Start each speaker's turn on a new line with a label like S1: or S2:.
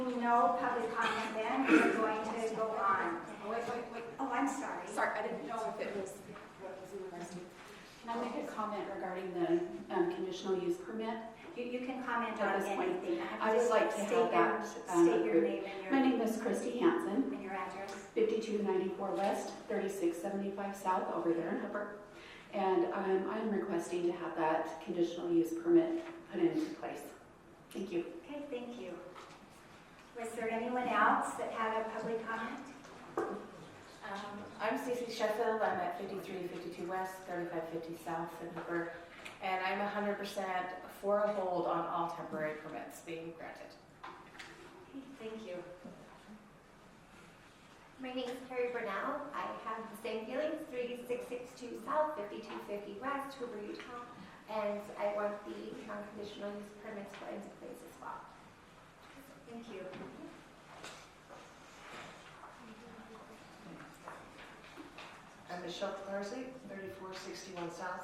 S1: no public comment then, we're going to go on.
S2: Oh, wait, wait, wait.
S1: Oh, I'm sorry.
S2: Sorry, I didn't know if it was, what was in regards to.
S3: Can I make a comment regarding the um, conditional use permit?
S1: You, you can comment
S3: At
S1: on
S3: this point,
S1: anything.
S3: I would like to
S1: State
S3: have
S1: your-
S3: that, um,
S1: State your
S3: approved.
S1: name
S3: My
S1: and your,
S3: name is Christy Hansen,
S1: and your address.
S3: 5294 West, 3675 South, over there in Hooper. And um, I'm requesting to have that conditional use permit put into place. Thank you.
S1: Okay, thank you. Was there anyone else that had a public comment?
S4: Um, I'm Stacy Sheffield, I'm at 5352 West, 3550 South in Hooper, and I'm 100% for a hold on all temporary permits being granted.
S1: Okay, Thank you.
S5: My name is Carrie Brunel. I have the same feelings, 3662 South, 5250 West, Hoover, Utah. And I want the non-conditional use permits put into place as well.
S1: Thank you.
S6: I'm Michelle Clarissy, 3461 South,